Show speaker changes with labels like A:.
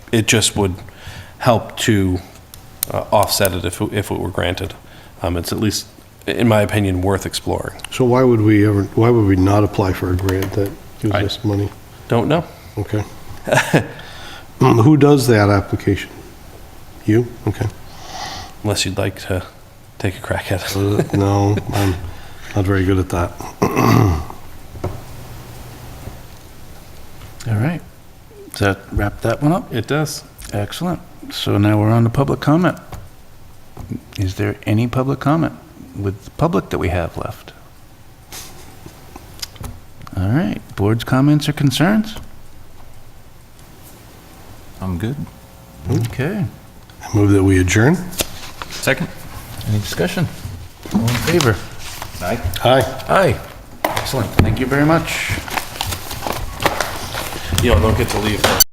A: it just would help to uh, offset it if, it- if it were granted. Um, It's at least, in my opinion, worth exploring.
B: So why would we ever, why would we not apply for a grant that gives
A: I-
B: us money?
A: Don't know.
B: Okay. Mm, Who does that application? You? Okay.
A: Unless you'd like to take a crack at it.
B: Uh, No, I'm not very good at that.
C: All right. Does that wrap that one up?
A: It does.
C: Excellent. So now we're on to public comment. Is there any public comment with the public that we have left? All right, board's comments or concerns?
D: I'm good.
C: Okay.
B: I Move that we adjourn?
D: Second?
C: Any discussion? All in favor?
D: Aye.
B: Aye.
C: Aye. Excellent. Thank you very much.
A: You don't get to leave.